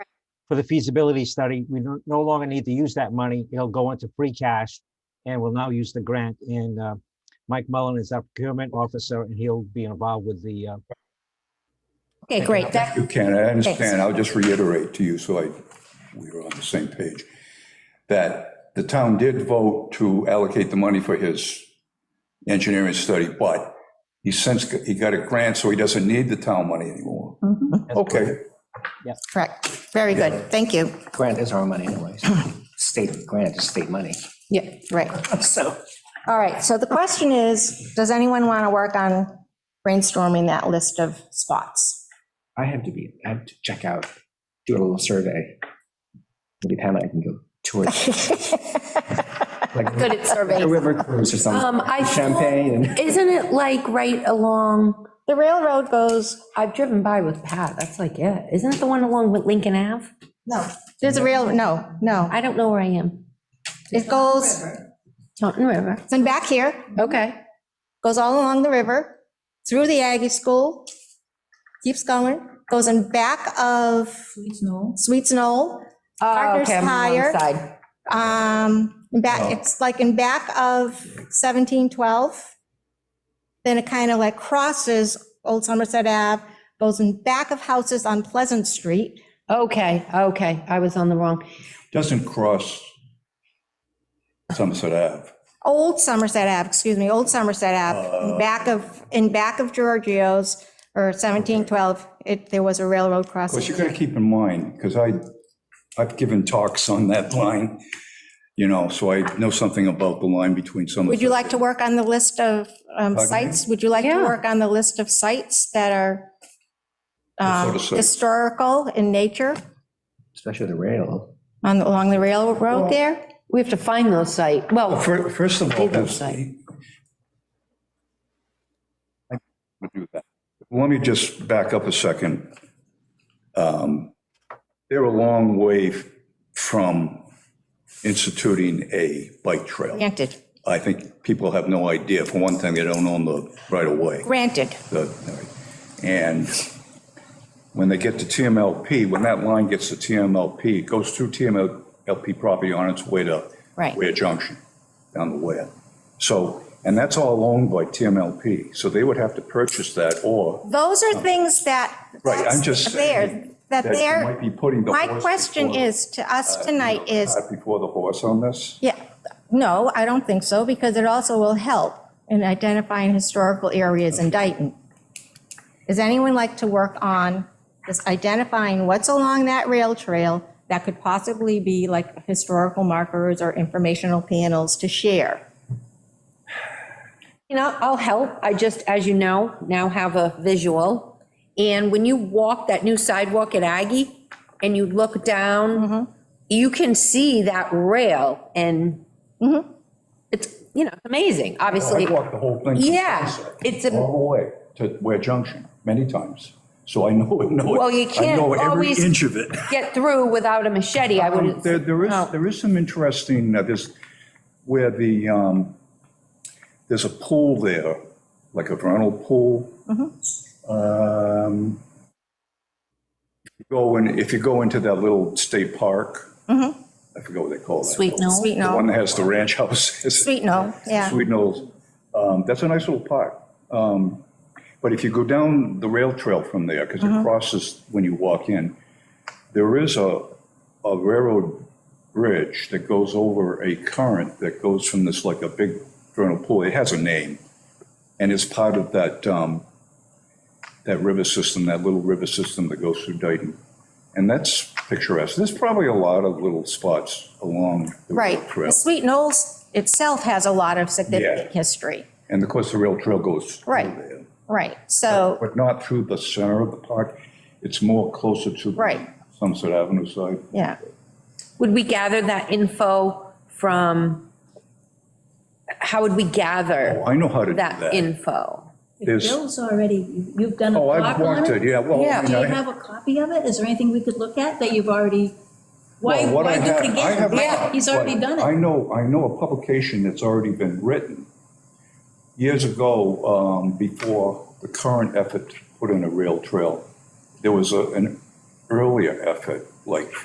for the feasibility study. We no no longer need to use that money. It'll go into free cash and we'll now use the grant. And uh, Mike Mullen is our procurement officer and he'll be involved with the, uh, Okay, great. That, You can, I Thanks. understand. I'll just reiterate to you, so I, we are on the same page, that the town did vote to allocate the money for his engineering study, but he since, got- he got a grant, so he doesn't need the town money anymore. Mhm, Okay, correct. Very good. Thank you. Grant is our money anyways. State grant is state money. Yeah, right. So All right, so the question is, does anyone want to work on brainstorming that list of spots? I have to be, I have to check out, do a little survey. Maybe Pam and I can go tour. like Good at A surveys. river cruise or Um, something. I thought- Champagne and. Isn't it like right along, The railroad goes, I've driven by with Pat, that's like it. Isn't it the one along with Lincoln Ave? no, there's a rail, no, no. I don't know where I am. It goes, Taunton River. then back here, Okay. goes all along the river, through the Aggie School, keeps going, goes in back of Sweets Knoll, Gardner's Oh, Okay, I'm on the Tire. wrong side. um, in back, it's like in back of 1712. Then it kind of like crosses Old Somerset Ave, goes in back of houses on Pleasant Street. Okay, okay, I was on the wrong. doesn't cross Somerset Ave. Old Somerset Ave, excuse me, Old Somerset Uh. Ave, in back of, in back of Giorgio's or 1712, it, there was a railroad Of course, you crossing. got to keep in mind, because I, I've given talks on that line, you know, so I know something about the line between Somerset. Would you like to work on the list of um, Pardon me? sites? Would you like to Yeah. work on the list of sites that are What sort um, of sites? historical in nature Especially the rail. on, along the railroad there? We have to find those sites. Well, Well, Oh, fir- First of all, Cathedral that's. site. I would do that. Let me just back up a second. Um, They're a long way from instituting a bike trail. Granted, I think people have no idea. For one thing, they don't own the right of way. granted. the- And when they get to TMLP, when that line gets to TMLP, it goes through TMLP property on its way to Right. Ware Junction, down the Ware. So, and that's all owned by TMLP, so they would have to purchase that, or Those are things that. Right, I'm just that's There, saying that that you there, might be putting the my horse. question before- uh, is to us tonight is, cart Before the horse on this? yeah, no, I don't think so, because it also will help in identifying historical areas in Dayton. Does anyone like to work on just identifying what's along that rail trail that could possibly be like historical markers or informational panels to share? You know, I'll help. I just, as you know, now have a visual. And when you walk that new sidewalk at Aggie and you look down, you can see that rail and it's, you know, it's amazing, obviously. I walked the whole thing. from Yeah, Sunset it's a- All the way to Ware Junction, many times, so I know, it. know it. Well, you I can't know every always- inch of it. Get through without a machete, I Um, would. Oh. There, there is, there is some interesting, uh, there's, where the, um, there's a pool there, like a vernal pool. Mm-hmm. Um, if you Go in, if you go into that little state park, Mm-hmm. I forget what they call that. Sweet Knoll. Sweet The one no, that has the ranch houses. sweet no, yeah. Sweet Knolls. Um, That's a nice little park. Um, But if you go down the rail trail from there, because Mm-hmm. it crosses when you walk in, there is a, a railroad bridge that goes over a current that goes from this, like a big vernal pool. It has a name. And it's part of that, um, that river system, that little river system that goes through Dayton. And that's picturesque. There's probably a lot of little spots along the rail Right. trail. The Sweet Knolls itself has a lot of significant Yeah. history. And of course, the rail trail goes through Right. there. Right. So, But not through the center of the park. It's more closer to. the Right. Sunset Avenue side. yeah. Would we gather that info from, how would we gather Oh, I know how to do that that. info? There's- Bill's already, you- you've done a Oh, block I've on walked it? it, yeah, well. I Yeah. mean, Do you I- have a copy of it? Is there anything we could look at that you've already, why, well, what why I do have- it I have- again? Yeah, he's already like, done it. I know, I know a publication that's already been written years ago, um, before the current effort to put in a rail trail. There was a, an earlier effort, like